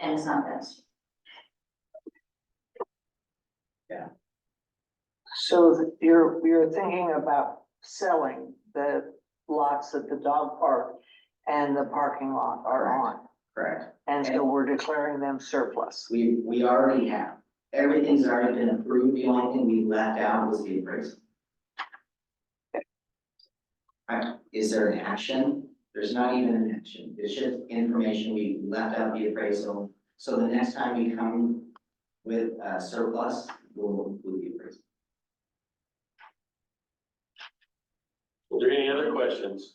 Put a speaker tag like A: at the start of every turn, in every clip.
A: and it's not fenced.
B: So that you're, you're thinking about selling the lots that the dog park and the parking lot are on.
C: Correct.
B: And so we're declaring them surplus.
C: We, we already have, everything's already been approved, the only thing we left out was the appraisal. Alright, is there an action? There's not even an action, it's just information, we left out the appraisal, so the next time we come with a surplus, we'll include the appraisal.
D: Are there any other questions?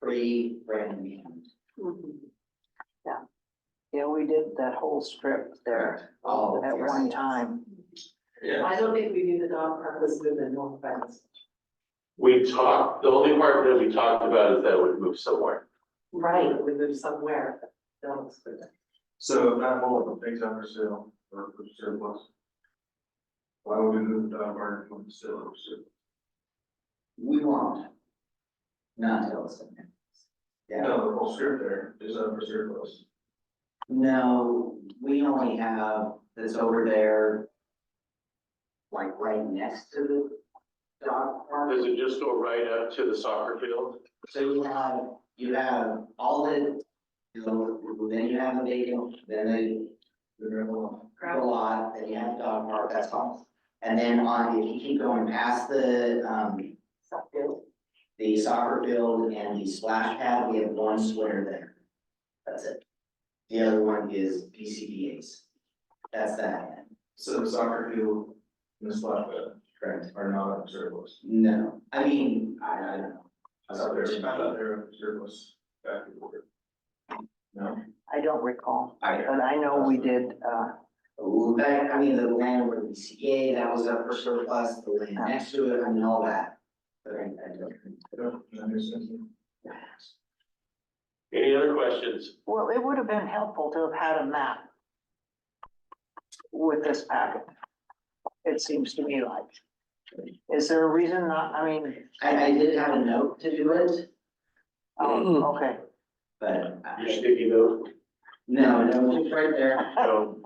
C: Free brand new.
E: Mm-hmm.
B: Yeah. Yeah, we did that whole strip there
C: All of
B: at
C: yours.
B: one time.
D: Yeah.
E: I don't think we knew the dog park was good in North Friends.
D: We talked, the only part that we talked about is that it would move somewhere.
E: Right. We moved somewhere, but that was good.
F: So not all of the things are for sale or for surplus. Why would we move uh, the dog park from sale or surplus?
C: We won't. Not until it's. Yeah.
F: No, the whole strip there is up for surplus.
C: No, we only have this over there. Like right next to the dog park.
D: Does it just go right up to the soccer field?
C: So you have, you have all the, you know, then you have the vacant, then the
F: The gravel
C: the lot, then you have the dog park, that's all. And then on, if you keep going past the, um, the soccer field and the splash pad, we have one square there. That's it. The other one is BCBA's. That's that,
F: so the soccer field and the splash pad
C: correct?
F: are not up for surplus.
C: No, I mean, I, I don't know.
F: I thought they were, I thought they were up for surplus back and forth. No,
B: I don't recall,
C: I don't
B: but I know we did, uh,
C: know. Back, I mean, the land where the CA, that was up for surplus, the land next to it, I mean, all that. But I, I don't.
F: I don't understand.
D: Any other questions?
B: well, it would have been helpful to have had a map with this packet. It seems to me like. Is there a reason not, I mean,
C: I, I did have a note to do it,
B: oh, okay.
C: but
D: You're
C: I,
D: sticky though?
C: no, no, it's right there.
D: No.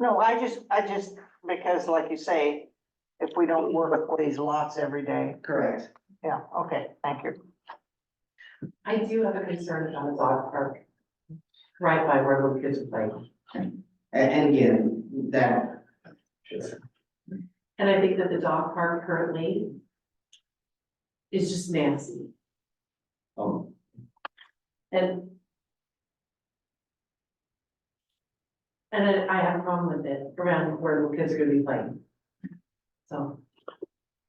B: No, I just, I just, because like you say, if we don't work with these lots every day,
C: Correct.
B: yeah, okay, thank you.
E: I do have a concern about the dog park. Right by where little kids play.
C: And, and again, that.
E: And I think that the dog park currently is just nasty
C: Oh,
E: and and I- I have a problem with it around where little kids are gonna be playing. So,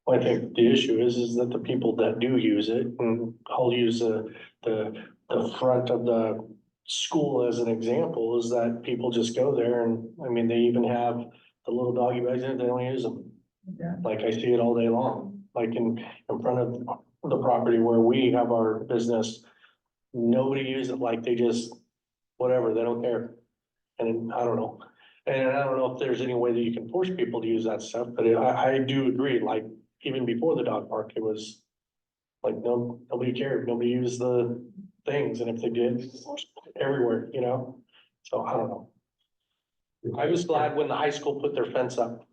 G: Well, I think the issue is, is that the people that do use it, and I'll use the, the, the front of the school as an example, is that people just go there and, I mean, they even have the little doggy bags there, they don't use them.
C: Yeah.
G: Like I see it all day long, like in, in front of the property where we have our business. Nobody uses it, like they just, whatever, they don't care. And I don't know. And I don't know if there's any way that you can force people to use that stuff, but I, I do agree, like, even before the dog park, it was. Like, no, nobody cared, nobody used the things, and if they did, everywhere, you know, so I don't know. I was glad when the high school put their fence up.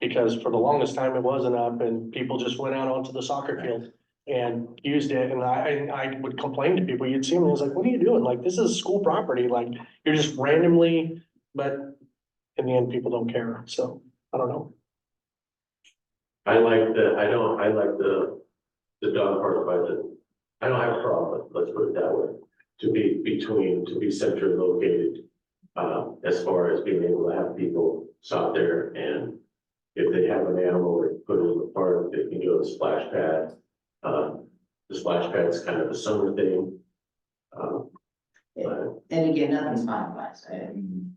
G: Because for the longest time, it wasn't up, and people just went out onto the soccer field and used it, and I, I, I would complain to people, you'd see them, and I was like, what are you doing? Like, this is school property, like, you're just randomly, but. In the end, people don't care, so, I don't know.
D: I like the, I don't, I like the, the dog park by the, I don't have a problem, let's put it that way. To be between, to be centrally located, uh, as far as being able to have people stop there and if they have an animal, they put it in the park, they can go to the splash pad. Uh, the splash pad's kind of a summer thing. Uh, but
C: and again, nothing's finalized, I mean,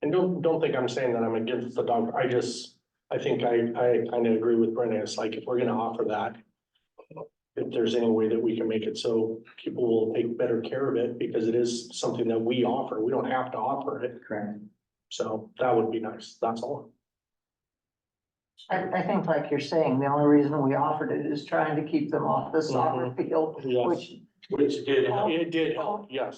G: And don't, don't think I'm saying that I'm against the dog, I just, I think I, I kind of agree with Brennan, it's like, if we're gonna offer that. If there's any way that we can make it so people will take better care of it, because it is something that we offer, we don't have to offer it,
C: correct.
G: so that would be nice, that's all.
B: I, I think like you're saying, the only reason we offered it is trying to keep them off the soccer field,
G: Yes.
B: which
D: Which did help.
G: It did help, yes.